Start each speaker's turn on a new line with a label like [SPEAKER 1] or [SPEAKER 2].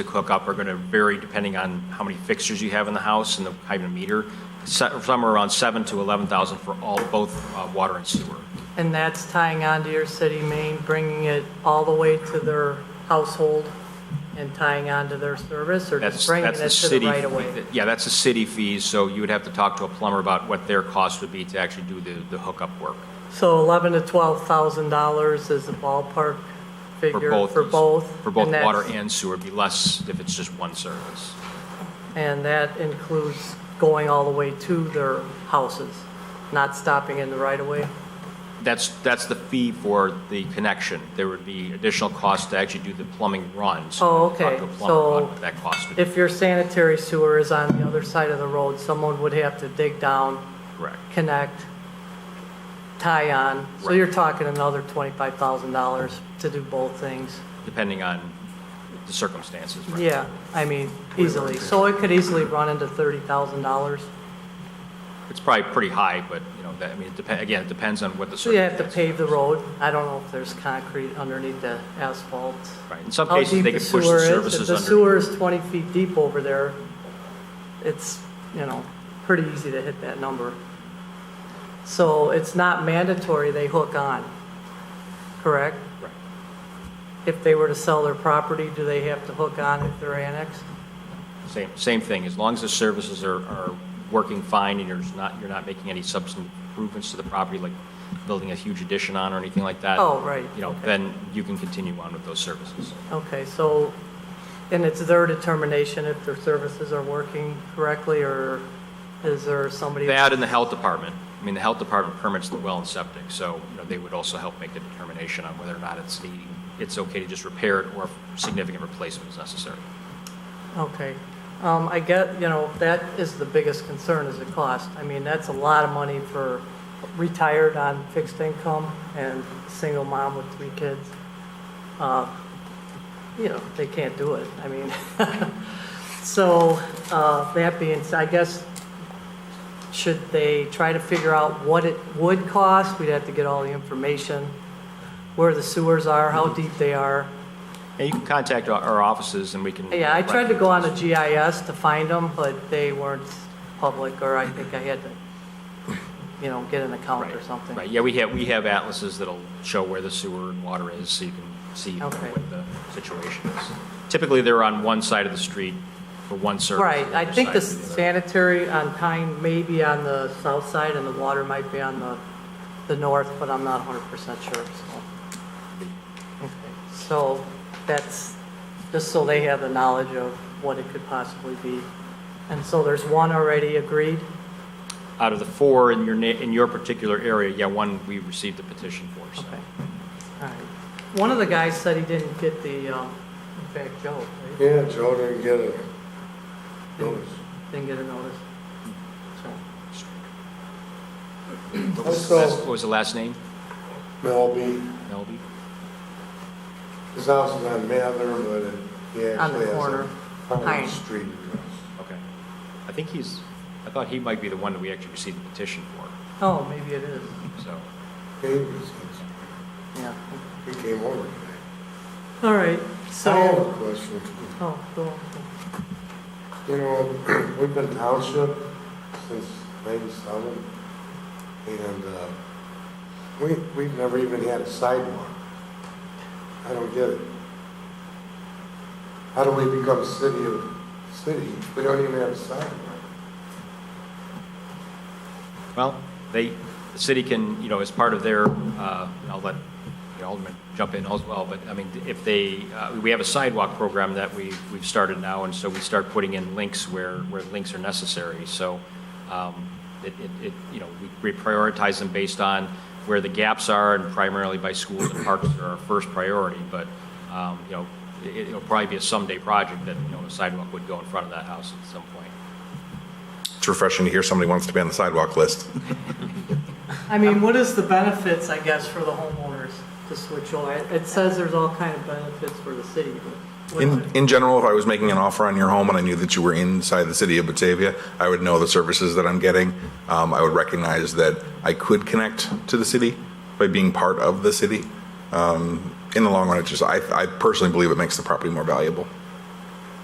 [SPEAKER 1] hook up are going to vary depending on how many fixtures you have in the house and the height of the meter. Se- Somewhere around 7 to 11,000 for all, both uh, water and sewer.
[SPEAKER 2] And that's tying onto your city main, bringing it all the way to their household and tying onto their service, or
[SPEAKER 1] That's,
[SPEAKER 2] just bringing it
[SPEAKER 1] that's the
[SPEAKER 2] to
[SPEAKER 1] city.
[SPEAKER 2] the right of way?
[SPEAKER 1] Yeah, that's the city fees, so you would have to talk to a plumber about what their cost would be to actually do the, the hookup work.
[SPEAKER 2] So 11 to 12,000 dollars is the ballpark figure for
[SPEAKER 1] these-
[SPEAKER 2] both?
[SPEAKER 1] For both
[SPEAKER 2] and
[SPEAKER 1] water
[SPEAKER 2] that's-
[SPEAKER 1] and sewer, it'd be less if it's just one service.
[SPEAKER 2] And that includes going all the way to their houses, not stopping in the right of way?
[SPEAKER 1] That's, that's the fee for the connection. There would be additional cost to actually do the plumbing runs.
[SPEAKER 2] Oh,
[SPEAKER 1] Talk to a
[SPEAKER 2] okay.
[SPEAKER 1] plumber about
[SPEAKER 2] So
[SPEAKER 1] what That cost would be
[SPEAKER 2] If your sanitary sewer is on the other side of the road, someone would have to dig down,
[SPEAKER 1] correct.
[SPEAKER 2] connect, tie on. So
[SPEAKER 1] Right.
[SPEAKER 2] you're talking another $25,000 to do both things.
[SPEAKER 1] depending on the circumstances. right?
[SPEAKER 2] Yeah, I mean, easily. So it could easily run into $30,000.
[SPEAKER 1] It's probably pretty high, but, you know, that, I mean, it depends, again, it depends on what the
[SPEAKER 2] So you have
[SPEAKER 1] circumstances.
[SPEAKER 2] to pave the road. I don't know if there's concrete underneath the asphalt.
[SPEAKER 1] Right, in some
[SPEAKER 2] How
[SPEAKER 1] cases,
[SPEAKER 2] deep
[SPEAKER 1] they
[SPEAKER 2] the
[SPEAKER 1] could push
[SPEAKER 2] sewer
[SPEAKER 1] the
[SPEAKER 2] is.
[SPEAKER 1] services
[SPEAKER 2] If the sewer
[SPEAKER 1] under.
[SPEAKER 2] is 20 feet deep over there, it's, you know, pretty easy to hit that number. So it's not mandatory they hook on, correct?
[SPEAKER 1] Right.
[SPEAKER 2] If they were to sell their property, do they have to hook on if they're annexed?
[SPEAKER 1] Same, same thing, as long as the services are, are working fine and you're just not, you're not making any substantive improvements to the property, like building a huge addition on or anything like that.
[SPEAKER 2] Oh, right,
[SPEAKER 1] You know,
[SPEAKER 2] okay.
[SPEAKER 1] then you can continue on with those services.
[SPEAKER 2] Okay, so, and it's their determination if their services are working correctly, or is there somebody?
[SPEAKER 1] That and the health department, I mean, the health department permits the well and septic, so, you know, they would also help make the determination on whether or not it's needing, it's okay to just repair it or if significant replacement is necessary.
[SPEAKER 2] Okay, um, I get, you know, that is the biggest concern is the cost. I mean, that's a lot of money for retired on fixed income and single mom with three kids. Uh, You know, they can't do it, I mean. So, uh, that being, said, I guess, should they try to figure out what it would cost? We'd have to get all the information, where the sewers are, how deep they are.
[SPEAKER 1] And you can contact our- our offices and we can.
[SPEAKER 2] Yeah, I tried to go on the GIS to find them, but they weren't public, or I think I had to, you know, get an account or something.
[SPEAKER 1] Right, yeah, we have, we have atlases that'll show where the sewer and water is, so you can see you know,
[SPEAKER 2] Okay.
[SPEAKER 1] what the situation is. Typically, they're on one side of the street for one service.
[SPEAKER 2] Right,
[SPEAKER 1] and
[SPEAKER 2] I
[SPEAKER 1] other
[SPEAKER 2] think the
[SPEAKER 1] side for the other.
[SPEAKER 2] sanitary on Pine may be on the south side, and the water might be on the, the north, but I'm not 100% sure, so. Okay, So that's, just so they have the knowledge of what it could possibly be. And so there's one already agreed?
[SPEAKER 1] Out of the four in your, na- in your particular area, yeah, one we received the petition for, so.
[SPEAKER 2] Okay, all right. One of the guys said he didn't get the, um, in fact, Joe, right?
[SPEAKER 3] Yeah, Joe didn't get it.
[SPEAKER 2] Didn't- Didn't get a notice.
[SPEAKER 1] What was the
[SPEAKER 3] Also-
[SPEAKER 1] last- what was the last name?
[SPEAKER 3] Melby,
[SPEAKER 1] Melby?
[SPEAKER 3] his house is on Mather, but it- he
[SPEAKER 2] On the
[SPEAKER 3] actually has
[SPEAKER 2] corner.
[SPEAKER 3] a
[SPEAKER 2] Pine.
[SPEAKER 3] Pine Street address.
[SPEAKER 1] Okay. I think he's, I thought he might be the one that we actually received the petition for,
[SPEAKER 2] So, oh, maybe it is,
[SPEAKER 1] so.
[SPEAKER 3] He was-
[SPEAKER 2] yeah.
[SPEAKER 3] he came over today.
[SPEAKER 2] All right,
[SPEAKER 3] I have
[SPEAKER 2] so,
[SPEAKER 3] a question.
[SPEAKER 2] oh, go on.
[SPEAKER 3] You know, we've been township since ninety-seven, and, uh, we, we've never even had a sidewalk. I don't get it. How do we become city of, city? We don't even have a sidewalk.
[SPEAKER 1] Well, they, the city can, you know, as part of their, uh, I'll let the alderman jump in as well, but, I mean, if they, uh, we have a sidewalk program that we, we've started now, and so we start putting in links where, where links are necessary, so, um, it, it, it, you know, we prioritize them based on where the gaps are, and primarily by schools and parks are our first priority, but, um, you know, it, it'll probably be a someday project that, you know, a sidewalk would go in front of that house at some point.
[SPEAKER 4] It's refreshing to hear somebody wants to be on the sidewalk list.
[SPEAKER 2] I mean, what is the benefits, I guess, for the homeowners to switch over? It- It says there's all kind of benefits for the city, but. what-
[SPEAKER 4] In, in general, if I was making an offer on your home and I knew that you were inside the city of Batavia, I would know the services that I'm getting. Um, I would recognize that I could connect to the city by being part of the city. Um, in the long run, it just, I, I personally believe it makes the property more valuable.